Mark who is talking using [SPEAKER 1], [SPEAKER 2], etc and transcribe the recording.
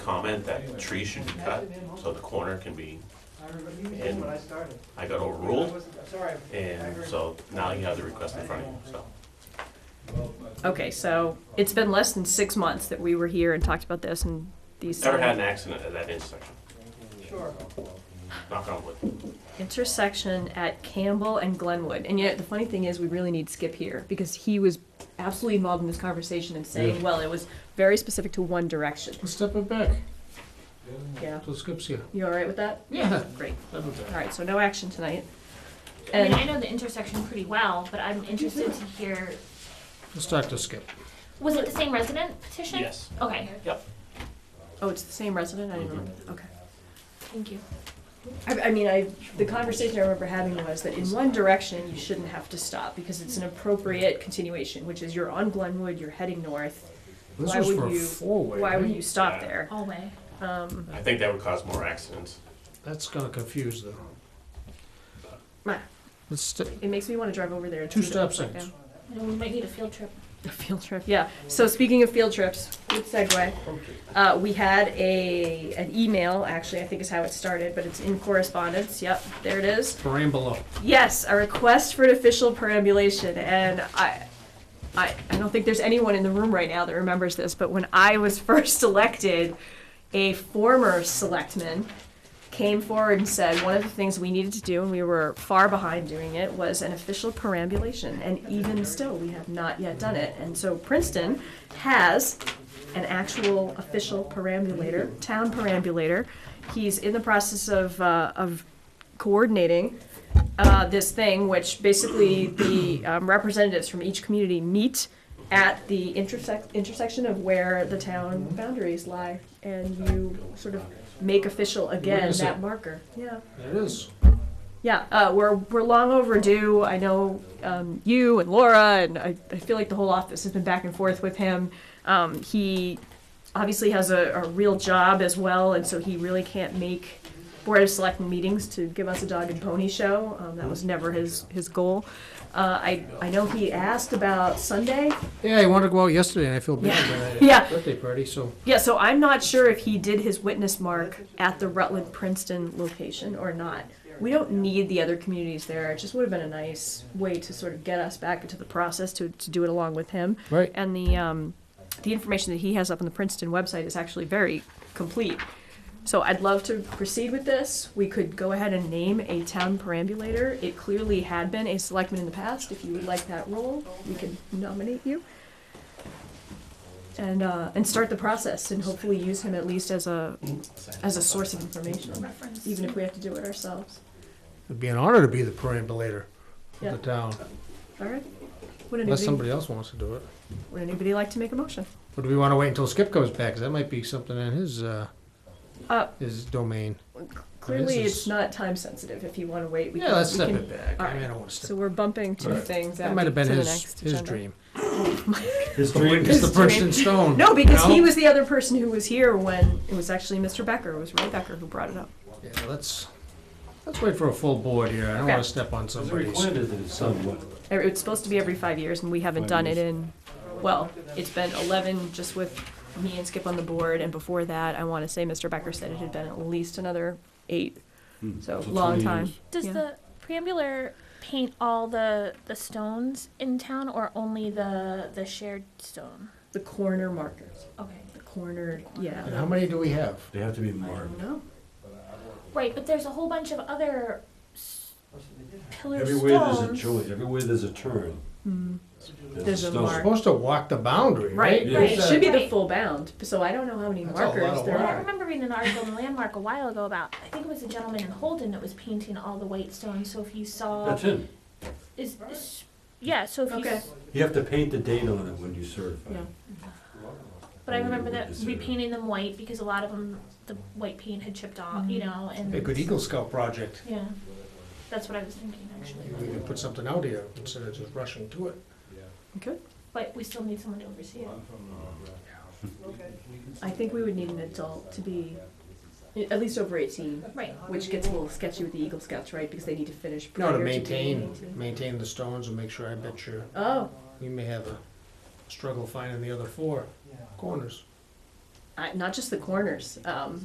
[SPEAKER 1] comment that tree should be cut, so the corner can be,
[SPEAKER 2] I remember, you did when I started.
[SPEAKER 1] I got overruled,
[SPEAKER 2] I wasn't- I'm Sorry. I
[SPEAKER 1] and
[SPEAKER 2] heard-
[SPEAKER 1] so now you have the request in front of you, so.
[SPEAKER 3] Okay, so it's been less than six months that we were here and talked about this and these
[SPEAKER 1] Never had an accident at that intersection,
[SPEAKER 2] Sure.
[SPEAKER 1] knock on wood.
[SPEAKER 3] intersection at Campbell and Glenwood. And yet the funny thing is we really need Skip here because he was absolutely involved in this conversation and saying, well, it was very specific to one direction.
[SPEAKER 4] Let's step it back
[SPEAKER 3] Yeah.
[SPEAKER 4] till Skip's here.
[SPEAKER 3] You all right with that?
[SPEAKER 4] Yeah.
[SPEAKER 3] Great.
[SPEAKER 4] Step it
[SPEAKER 3] All
[SPEAKER 4] back.
[SPEAKER 3] right, so no action tonight.
[SPEAKER 5] I mean,
[SPEAKER 3] And-
[SPEAKER 5] I know the intersection pretty well, but I'm interested to hear,
[SPEAKER 4] Let's talk to Skip.
[SPEAKER 5] was it the same resident petition?
[SPEAKER 1] Yes,
[SPEAKER 5] Okay,
[SPEAKER 3] Oh, it's the same resident? I didn't remember. Okay.
[SPEAKER 5] thank you.
[SPEAKER 3] I, I mean, I, the conversation I remember having was that in one direction, you shouldn't have to stop because it's an appropriate continuation, which is you're on Glenwood, you're heading north.
[SPEAKER 4] This
[SPEAKER 3] Why
[SPEAKER 4] was
[SPEAKER 3] would
[SPEAKER 4] for a
[SPEAKER 3] you-
[SPEAKER 4] four-way,
[SPEAKER 3] Why would
[SPEAKER 4] right?
[SPEAKER 3] you stop
[SPEAKER 1] Yeah.
[SPEAKER 3] there?
[SPEAKER 5] All way.
[SPEAKER 3] Um,
[SPEAKER 1] I think that would cause more accidents.
[SPEAKER 4] That's gonna confuse them.
[SPEAKER 3] Ma.
[SPEAKER 4] Let's st-
[SPEAKER 3] it makes me want to drive over there. and
[SPEAKER 4] two
[SPEAKER 3] see the-
[SPEAKER 4] stop signs.
[SPEAKER 5] You know, We might need a field trip.
[SPEAKER 3] A field trip, yeah. So speaking of field trips, good segue. Uh, we had a, an email, actually, I think is how it started, but it's in correspondence. Yep, there it is.
[SPEAKER 4] Parambula.
[SPEAKER 3] Yes, a request for an official perambulation, and I, I, I don't think there's anyone in the room right now that remembers this, but when I was first elected, a former selectman came forward and said one of the things we needed to do, and we were far behind doing it, was an official perambulation, and even still, we have not yet done it. And so Princeton has an actual official perambulator, town perambulator. He's in the process of, uh, of coordinating uh, this thing, which basically the um, representatives from each community meet at the intersect, intersection of where the town boundaries lie, and you sort of make official again
[SPEAKER 4] is
[SPEAKER 3] that
[SPEAKER 4] it?
[SPEAKER 3] marker. Yeah.
[SPEAKER 4] There it is.
[SPEAKER 3] Yeah, uh, we're, we're long overdue. I know um, you and Laura, and I, I feel like the whole office has been back and forth with him. Um, he obviously has a, a real job as well, and so he really can't make Board of Selectmen meetings to give us a dog and pony show. Um, that was never his, his goal. Uh, I, I know he asked about Sunday.
[SPEAKER 4] Yeah, I wanted to go out yesterday and I feel bad that I had a
[SPEAKER 3] Yeah.
[SPEAKER 4] birthday party, so
[SPEAKER 3] Yeah, so I'm not sure if he did his witness mark at the Rutland Princeton location or not. We don't need the other communities there. It just would have been a nice way to sort of get us back into the process to, to do it along with him.
[SPEAKER 4] Right.
[SPEAKER 3] And the, um, the information that he has up on the Princeton website is actually very complete. So I'd love to proceed with this. We could go ahead and name a town perambulator. It clearly had been a selectman in the past. If you would like that role, we can nominate you and uh, and start the process and hopefully use him at least as a as a source of information,
[SPEAKER 5] Reference.
[SPEAKER 3] even if we have to do it ourselves.
[SPEAKER 4] it'd be an honor to be the perambulator of
[SPEAKER 3] Yeah.
[SPEAKER 4] the town.
[SPEAKER 3] All right. Would
[SPEAKER 4] Unless
[SPEAKER 3] anybody
[SPEAKER 4] somebody else wants to do it.
[SPEAKER 3] would anybody like to make a motion?
[SPEAKER 4] But do we wanna wait until Skip comes back? 'Cause that might be something in his, uh,
[SPEAKER 3] Uh,
[SPEAKER 4] his domain.
[SPEAKER 3] Clearly,
[SPEAKER 4] is-
[SPEAKER 3] it's not time sensitive. If you want to wait, we
[SPEAKER 4] Yeah,
[SPEAKER 3] can.
[SPEAKER 4] let's
[SPEAKER 3] we
[SPEAKER 4] step
[SPEAKER 3] can-
[SPEAKER 4] it back.
[SPEAKER 3] all
[SPEAKER 4] I mean, I
[SPEAKER 3] right.
[SPEAKER 4] don't wanna
[SPEAKER 3] So
[SPEAKER 4] step.
[SPEAKER 3] we're bumping two things.
[SPEAKER 4] That
[SPEAKER 3] out
[SPEAKER 4] might have been
[SPEAKER 3] to the
[SPEAKER 4] his,
[SPEAKER 3] next
[SPEAKER 4] his
[SPEAKER 3] agenda.
[SPEAKER 4] dream. It's
[SPEAKER 6] His
[SPEAKER 4] the
[SPEAKER 3] His dream.
[SPEAKER 4] Princeton Stone.
[SPEAKER 3] No, because
[SPEAKER 4] you know?
[SPEAKER 3] he was the other person who was here when it was actually Mr. Becker. It was Ray Becker who brought it up.
[SPEAKER 4] Yeah, let's, let's wait for a full board here. I don't
[SPEAKER 3] Okay.
[SPEAKER 4] wanna step on
[SPEAKER 6] Is it
[SPEAKER 4] somebody's.
[SPEAKER 6] required that it's done what?
[SPEAKER 3] Every- It's supposed to be every five years, and we haven't
[SPEAKER 6] Five
[SPEAKER 3] done it
[SPEAKER 6] years.
[SPEAKER 3] in, well, it's been eleven just with me and Skip on the board, and before that, I wanna say Mr. Becker said it had been at least another eight, so
[SPEAKER 6] Hmm. so
[SPEAKER 3] long
[SPEAKER 6] 20
[SPEAKER 3] time.
[SPEAKER 6] years.
[SPEAKER 5] Does
[SPEAKER 3] Yeah.
[SPEAKER 5] the preambular paint all the, the stones in town or only the, the shared stone?
[SPEAKER 3] The corner markers,
[SPEAKER 5] Okay.
[SPEAKER 3] the corner,
[SPEAKER 4] And
[SPEAKER 3] yeah.
[SPEAKER 4] how many do we have?
[SPEAKER 6] They have to be
[SPEAKER 3] I don't
[SPEAKER 6] marked.
[SPEAKER 3] know.
[SPEAKER 5] Right, but there's a whole bunch of other s- pillar
[SPEAKER 6] Everywhere there's a
[SPEAKER 5] stones.
[SPEAKER 6] joint, everywhere there's a turn.
[SPEAKER 3] Hmm. There's a
[SPEAKER 6] stone.
[SPEAKER 3] mark.
[SPEAKER 4] Supposed to walk the boundary,
[SPEAKER 3] Right,
[SPEAKER 4] right?
[SPEAKER 6] Yeah.
[SPEAKER 3] right, it
[SPEAKER 4] It's, uh,
[SPEAKER 3] should be the
[SPEAKER 5] Right.
[SPEAKER 3] full bound, so I don't know how many
[SPEAKER 4] That's a lot
[SPEAKER 3] markers
[SPEAKER 4] of
[SPEAKER 3] there
[SPEAKER 4] work.
[SPEAKER 5] I
[SPEAKER 3] are.
[SPEAKER 5] remember reading an article in Landmark a while ago about, I think it was a gentleman in Holden that was painting all the white stones, so if you saw,
[SPEAKER 6] That's it.
[SPEAKER 5] is, is- yeah, so if you
[SPEAKER 3] Okay.
[SPEAKER 6] You have to paint the date on it when you certify.
[SPEAKER 3] Yeah.
[SPEAKER 5] But I
[SPEAKER 6] Only
[SPEAKER 5] remember
[SPEAKER 6] would
[SPEAKER 5] that
[SPEAKER 6] consider.
[SPEAKER 5] repainting them white because a lot of them, the white paint had chipped off, you know, and.
[SPEAKER 4] A good Eagle Scout project.
[SPEAKER 5] Yeah, that's what I was thinking
[SPEAKER 4] We
[SPEAKER 5] actually.
[SPEAKER 4] could put something out here instead of just rushing to it.
[SPEAKER 3] Okay,
[SPEAKER 5] But we still need someone to oversee it.
[SPEAKER 6] Uh,
[SPEAKER 3] I think we would need an adult to be at least over eighteen,
[SPEAKER 5] Right.
[SPEAKER 3] which gets a little sketchy with the Eagle Scouts, right, because they need to finish
[SPEAKER 4] No,
[SPEAKER 3] prior
[SPEAKER 4] to
[SPEAKER 3] being
[SPEAKER 4] maintain,
[SPEAKER 3] 18.
[SPEAKER 4] maintain the stones and make sure, I bet you,
[SPEAKER 3] Oh,
[SPEAKER 4] we may have a struggle finding the other four corners.
[SPEAKER 3] I- not just the corners, um,